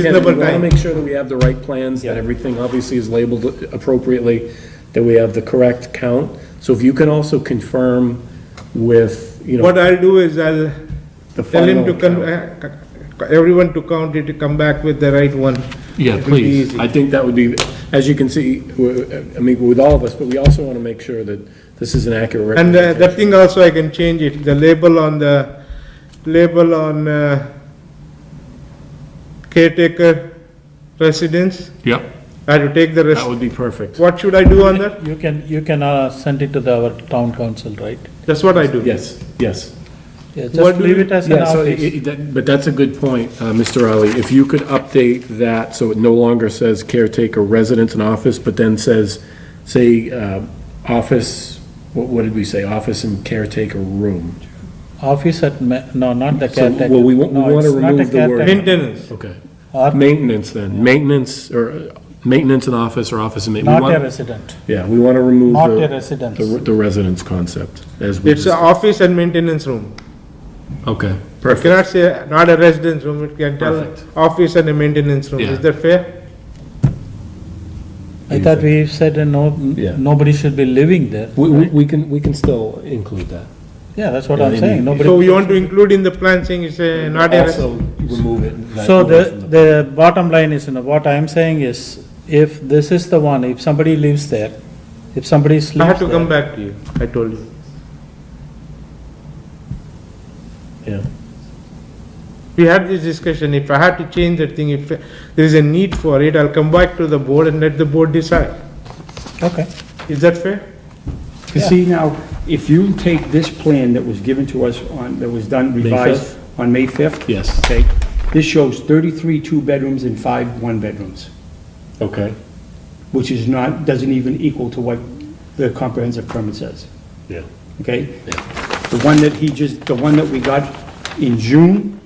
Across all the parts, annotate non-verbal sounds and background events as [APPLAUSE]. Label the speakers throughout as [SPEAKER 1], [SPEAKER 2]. [SPEAKER 1] Again, we
[SPEAKER 2] number
[SPEAKER 1] want to
[SPEAKER 2] nine.
[SPEAKER 1] make sure that we have the right plans, that everything obviously is labeled appropriately, that we have the correct count. So if you can also confirm with, you know,
[SPEAKER 2] What I'll do is I'll
[SPEAKER 1] the
[SPEAKER 2] tell him
[SPEAKER 1] final
[SPEAKER 2] to, con-
[SPEAKER 1] count.
[SPEAKER 2] uh, co- everyone to count it, to come back with the right one.
[SPEAKER 1] Yeah,
[SPEAKER 2] It will be
[SPEAKER 1] please.
[SPEAKER 2] easy.
[SPEAKER 1] I think that would be, as you can see, we're- I mean, with all of us, but we also want to make sure that this is an accurate
[SPEAKER 2] And uh,
[SPEAKER 1] representation.
[SPEAKER 2] that thing also I can change it, the label on the, label on uh, caretaker residence,
[SPEAKER 3] Yep.
[SPEAKER 2] I have to take the
[SPEAKER 1] That
[SPEAKER 2] rest.
[SPEAKER 1] would be perfect.
[SPEAKER 2] What should I do on that?
[SPEAKER 4] You can, you can uh, send it to the- our town council, right?
[SPEAKER 2] That's what I do.
[SPEAKER 1] Yes, yes.
[SPEAKER 4] Yeah,
[SPEAKER 2] What
[SPEAKER 4] just
[SPEAKER 2] do
[SPEAKER 4] leave
[SPEAKER 2] you-
[SPEAKER 4] it as an
[SPEAKER 1] Yeah, so, it-
[SPEAKER 4] office.
[SPEAKER 1] it- that- but that's a good point, uh, Mr. Ali. If you could update that so it no longer says caretaker residence and office, but then says, say, uh, office, what, what did we say? Office and caretaker room.
[SPEAKER 4] Office at, ma- no, not the
[SPEAKER 1] So,
[SPEAKER 4] caretaker.
[SPEAKER 1] well, we wa- we
[SPEAKER 4] No,
[SPEAKER 1] wanna
[SPEAKER 4] it's not a
[SPEAKER 1] remove the word.
[SPEAKER 4] caretaker.
[SPEAKER 2] Maintenance,
[SPEAKER 1] Okay.
[SPEAKER 4] Or
[SPEAKER 1] Maintenance then, maintenance or, uh, maintenance and office or office and. ma- we
[SPEAKER 4] not
[SPEAKER 1] want-
[SPEAKER 4] a resident,
[SPEAKER 1] Yeah, we want to remove
[SPEAKER 4] not a
[SPEAKER 1] the,
[SPEAKER 4] residence.
[SPEAKER 1] the re- the residence concept as we.
[SPEAKER 2] it's uh, an
[SPEAKER 1] just-
[SPEAKER 2] office and maintenance room.
[SPEAKER 1] Okay,
[SPEAKER 2] You
[SPEAKER 1] perfect.
[SPEAKER 2] cannot say not a residence room, it can tell
[SPEAKER 1] Perfect.
[SPEAKER 2] office and a maintenance room,
[SPEAKER 1] Yeah.
[SPEAKER 2] is that fair?
[SPEAKER 4] I thought we said uh, no,
[SPEAKER 1] Yeah.
[SPEAKER 4] nobody should be living there.
[SPEAKER 1] We, we we can, we can still include that.
[SPEAKER 4] Yeah, that's what
[SPEAKER 1] Yeah,
[SPEAKER 4] I'm
[SPEAKER 1] they
[SPEAKER 4] saying,
[SPEAKER 1] need-
[SPEAKER 4] nobody.
[SPEAKER 2] So you want to include in the plan saying it's a not a, res-
[SPEAKER 1] Also remove it. that-
[SPEAKER 4] So the, the bottom line is, you know, what I'm saying is, if this is the one, if somebody lives there, if somebody sleeps
[SPEAKER 2] I have to come
[SPEAKER 4] there,
[SPEAKER 2] back to you, I told you.
[SPEAKER 1] Yeah.
[SPEAKER 2] We had this discussion, if I had to change that thing, if there is a need for it, I'll come back to the board and let the board decide.
[SPEAKER 4] Okay,
[SPEAKER 2] Is that fair?
[SPEAKER 5] You see now, if you take this plan that was given to us on, that was done revised
[SPEAKER 1] 5th?
[SPEAKER 5] on May 5th.
[SPEAKER 1] Yes.
[SPEAKER 5] Okay, this shows 33 two-bedrooms and five one-bedrooms,
[SPEAKER 1] Okay,
[SPEAKER 5] which is not, doesn't even equal to what the comprehensive permit says,
[SPEAKER 1] yeah.
[SPEAKER 5] okay? The one that he just, the one that we got in June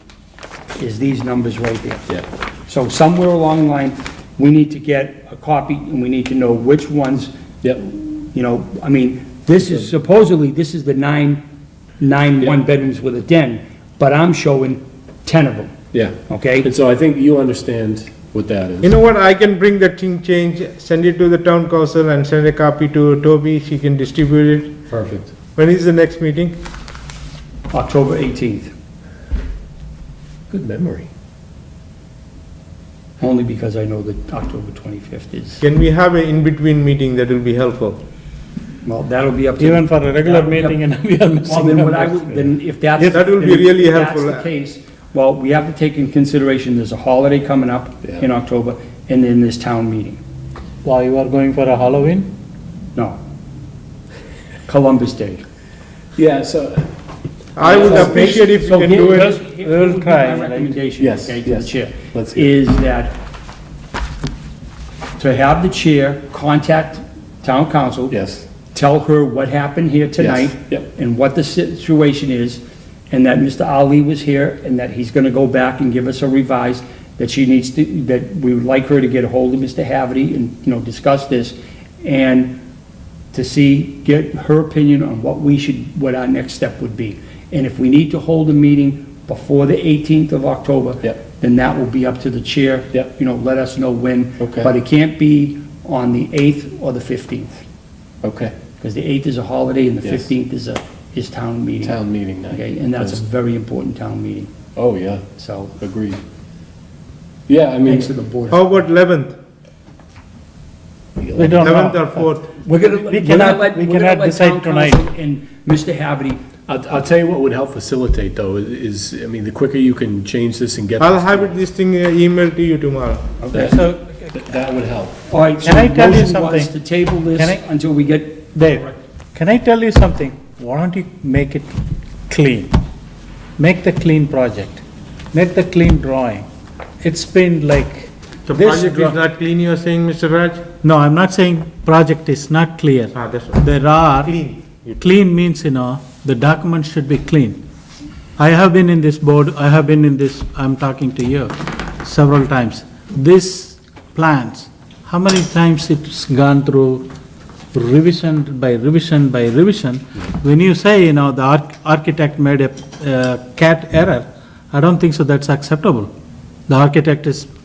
[SPEAKER 5] is these numbers right there.
[SPEAKER 1] Yeah.
[SPEAKER 5] So somewhere along the line, we need to get a copy, and we need to know which ones
[SPEAKER 1] Yep.
[SPEAKER 5] You know, I mean, this is supposedly, this is the nine, nine one-bedrooms with a den, but I'm showing 10 of them,
[SPEAKER 1] Yeah.
[SPEAKER 5] okay?
[SPEAKER 1] And so I think you understand what that
[SPEAKER 2] You
[SPEAKER 1] is.
[SPEAKER 2] know what, I can bring that thing change, send it to the town council and send a copy to Toby, she can distribute it.
[SPEAKER 1] Perfect.
[SPEAKER 2] When is the next meeting?
[SPEAKER 5] October 18th,
[SPEAKER 1] Good memory.
[SPEAKER 5] only because I know that October 25th is,
[SPEAKER 2] Can we have an in-between meeting that will be helpful?
[SPEAKER 5] well, that'll be up to...
[SPEAKER 4] even for a regular
[SPEAKER 5] That'll be up-
[SPEAKER 4] meeting and [LAUGHS] we are
[SPEAKER 5] Well,
[SPEAKER 4] missing
[SPEAKER 5] then what I
[SPEAKER 4] numbers.
[SPEAKER 5] would, then if that's...
[SPEAKER 2] Yes, that will be
[SPEAKER 5] then if
[SPEAKER 2] really helpful.
[SPEAKER 5] that's the case, well, we have to take in consideration, there's a holiday coming up in October, and then this town meeting.
[SPEAKER 4] Why, you are going for a Halloween?
[SPEAKER 5] No. Columbus Day.
[SPEAKER 1] Yeah, so,
[SPEAKER 2] I would
[SPEAKER 1] So-
[SPEAKER 2] appreciate if you
[SPEAKER 5] So
[SPEAKER 2] can
[SPEAKER 5] here-
[SPEAKER 2] do
[SPEAKER 5] here's-
[SPEAKER 2] it.
[SPEAKER 5] here
[SPEAKER 4] We'll
[SPEAKER 5] would be
[SPEAKER 4] try,
[SPEAKER 5] My
[SPEAKER 4] right?
[SPEAKER 5] recommendation,
[SPEAKER 1] Yes,
[SPEAKER 5] okay, to the
[SPEAKER 1] yes.
[SPEAKER 5] chair,
[SPEAKER 1] Let's hear
[SPEAKER 5] is that to have the chair contact town council.
[SPEAKER 1] yes,
[SPEAKER 5] Tell her what happened here tonight.
[SPEAKER 1] yep.
[SPEAKER 5] And what the situation is, and that Mr. Ali was here, and that he's gonna go back and give us a revised, that she needs to, that we would like her to get a hold of Mr. Haverty and, you know, discuss this, and to see, get her opinion on what we should, what our next step would be. And if we need to hold a meeting before the 18th of October.
[SPEAKER 1] Yep.
[SPEAKER 5] Then that will be up to the chair.
[SPEAKER 1] Yep.
[SPEAKER 5] You know, let us know when.
[SPEAKER 1] Okay.
[SPEAKER 5] But it can't be on the 8th or the 15th,
[SPEAKER 1] okay,
[SPEAKER 5] because the 8th is a holiday and the
[SPEAKER 1] Yes.
[SPEAKER 5] 15th is a, is town meeting.
[SPEAKER 1] town meeting night.
[SPEAKER 5] Okay, and that's a very important town meeting,
[SPEAKER 1] Oh, yeah,
[SPEAKER 5] so
[SPEAKER 1] agreed. Yeah, I mean,
[SPEAKER 5] thanks to the board.
[SPEAKER 2] How about eleventh,
[SPEAKER 4] We don't
[SPEAKER 2] eleventh
[SPEAKER 4] know.
[SPEAKER 2] or fourth?
[SPEAKER 5] We're gonna,
[SPEAKER 4] we cannot- we cannot decide tonight.
[SPEAKER 5] And Mr. Haverty,
[SPEAKER 1] I'll, I'll tell you what would help facilitate though, is, I mean, the quicker you can change this and get.
[SPEAKER 2] I'll have it, this thing uh, emailed to you tomorrow.
[SPEAKER 1] That,
[SPEAKER 4] So,
[SPEAKER 1] that would help.
[SPEAKER 5] all right, so
[SPEAKER 4] Can I tell you
[SPEAKER 5] motion was to
[SPEAKER 4] something?
[SPEAKER 5] table
[SPEAKER 4] Can I-
[SPEAKER 5] this until we get,
[SPEAKER 4] Dave, can I tell you something? Why don't you make it clean? Make the clean project, make the clean drawing. It's been like.
[SPEAKER 2] The
[SPEAKER 4] this
[SPEAKER 2] project
[SPEAKER 4] draw-
[SPEAKER 2] is not clean, you're saying, Mr. Raj?
[SPEAKER 4] No, I'm not saying project is not clear.
[SPEAKER 2] Ah, that's right.
[SPEAKER 4] There are.
[SPEAKER 2] Clean.
[SPEAKER 4] Clean means, you know, the document should be clean. I have been in this board, I have been in this, I'm talking to you several times. This plans, how many times it's gone through revision by revision by revision? When you say, you know, the arch- architect made a uh, cat error, I don't think so that's acceptable. The architect is